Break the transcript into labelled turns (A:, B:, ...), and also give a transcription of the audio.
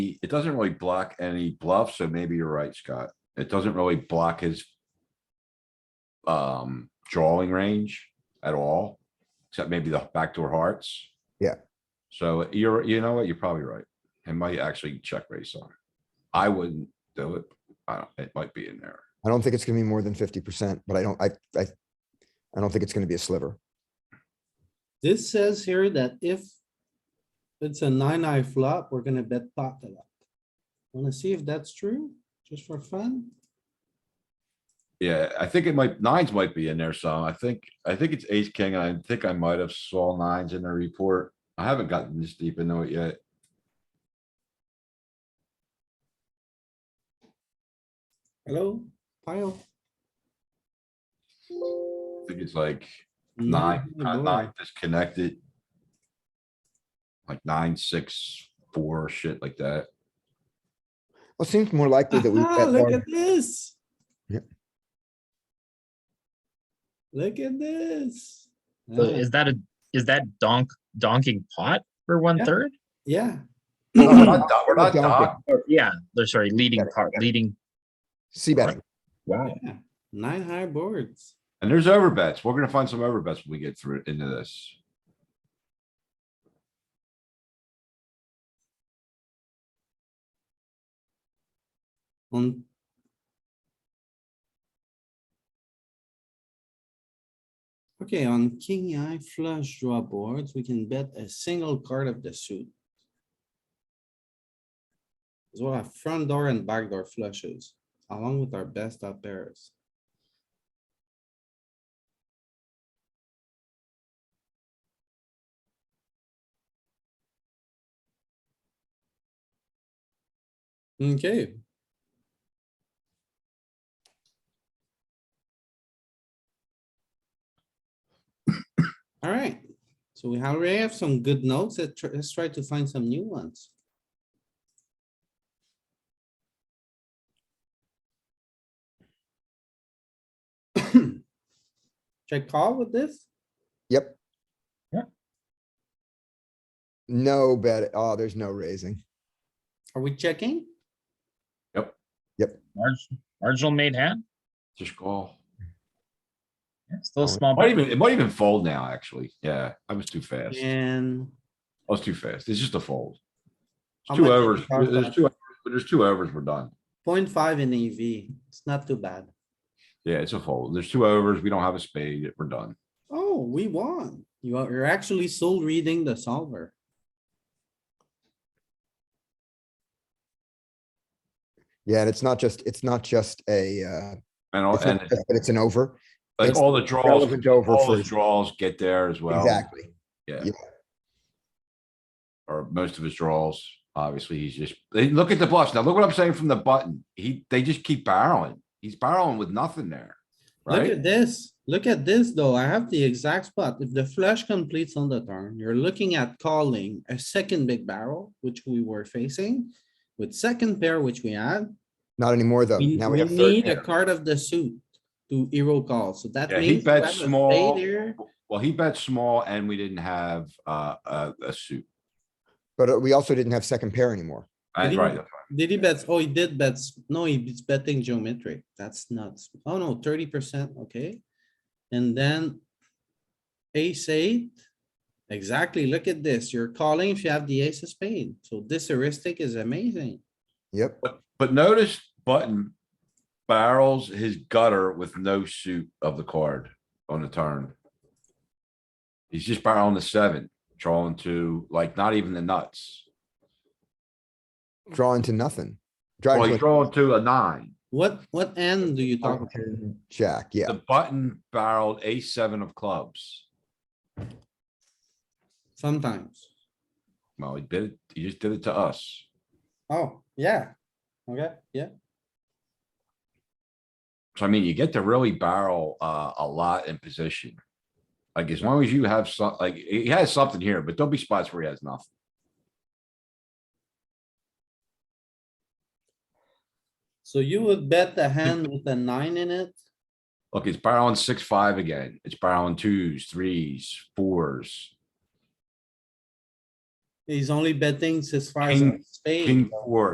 A: it doesn't really block any bluff, so maybe you're right, Scott. It doesn't really block his um, drawing range at all, except maybe the backdoor hearts.
B: Yeah.
A: So you're, you know what? You're probably right. It might actually check raise on. I wouldn't do it. I don't, it might be in there.
B: I don't think it's gonna be more than fifty percent, but I don't, I, I, I don't think it's gonna be a sliver.
C: This says here that if it's a nine eye flop, we're gonna bet pot a lot. Wanna see if that's true, just for fun?
A: Yeah, I think it might, nines might be in there some. I think, I think it's ace, king. I think I might have saw nines in the report. I haven't gotten this deep into it yet.
C: Hello, pile.
A: I think it's like nine,
C: Nine,
A: kinda
C: boy.
A: nine disconnected. Like nine, six, four, shit like that.
B: Well, it seems more likely that we
C: Aha,
B: bet
C: Look
B: large.
C: at this.
B: Yep.
C: Look at this.
D: So
B: Mm.
C: Ah,
D: is that a is that donk donking pot for one
C: Yeah.
D: third?
C: Yeah,
A: No, We're not do- we're not
B: We're not
A: docked.
D: Or- yeah, they're sorry, leading
B: Got it,
D: pot,
B: got it.
D: leading.
B: C betting.
D: Wow.
C: yeah, nine high boards.
A: And there's overbets. We're gonna find some overbets when we get through into this.
C: On. Okay, on king eye flush draw boards, we can bet a single card of the suit. As well, as front door and back door flushes, along with our best up pairs. Okay, alright, so we already have some good notes, let's tr- let's try to find some new ones. Check call with this?
B: Yep.
D: Yeah.
B: No bet. Oh, there's no raising.
C: Are we checking?
D: Marg- marginal made hand.
A: Just call.
D: Yeah, still
B: Oh,
D: a small.
A: Might
D: bet.
A: even, it might even fold now, actually. Yeah, I was too fast. I
C: And
A: was too fast. It's just a fold.
C: How
A: It's Two
C: much
A: overs,
C: is our
A: there's
C: bet?
A: two, there's two overs, we're done.
C: 0.5 in EV, it's not too bad.
A: Yeah, it's a fold. There's two overs. We don't have a spade. We're done.
C: Oh, we won. You are, you're actually still reading the solver.
B: Yeah, and it's not just, it's not just a, uh,
A: And, all-
B: it's not
A: Oh, and
B: just that it's an over.
A: like
B: it's
A: all the draws,
B: Relevant over
A: all
B: for,
A: the draws get there as well.
B: exactly.
A: or most of his draws. Obviously, he's just, they look at the bluffs. Now, look what I'm saying from the button. He, they just keep barreling. He's barreling with nothing there,
C: Look
A: right?
C: at this, look at this though, I have the exact spot, if the flush completes on the turn, you're looking at calling a second big barrel, which we were facing. With second pair, which we had,
B: Not anymore though.
C: we
B: Oh, Now we
C: we
B: have third
C: need a
B: pair.
C: card of the suit to hero call, so that
A: Yeah, he
C: means. you
A: bet
C: have a spade
A: small.
C: here.
A: Well, he bet small and we didn't have, uh, a, a suit.
B: But uh, we also didn't have second pair anymore.
A: Uh,
C: Did he-
A: Right,
C: Did he bet, oh, he did bet, s- no, he's betting geometric, that's nuts, oh no, thirty percent, okay. And then ace eight, exactly, look at this, you're calling if you have the ace of spade, so this heuristic is amazing.
B: Yep.
A: but, but notice button barrels his gutter with no suit of the card on the turn. He's just barreling the seven, drawing to like not even the nuts.
B: Drawing to nothing.
A: Well,
B: Drawing
A: he's
B: to
A: drawing to a nine.
C: What, what end do you talk
B: a-
C: about?
B: Jack, yeah.
A: The button barreled ace seven of clubs.
C: sometimes?
A: Well, he did it, he just did it to us.
C: Oh, yeah, okay, yeah,
A: So I mean, you get to really barrel uh a lot in position. Like as long as you have some, like he has something here, but there'll be spots where he has nothing.
C: so you would bet the hand with a nine in it,
A: Look, it's barreling six, five again. It's barreling twos, threes, fours.
C: He's only betting his five
A: King-
C: spade.
A: King four,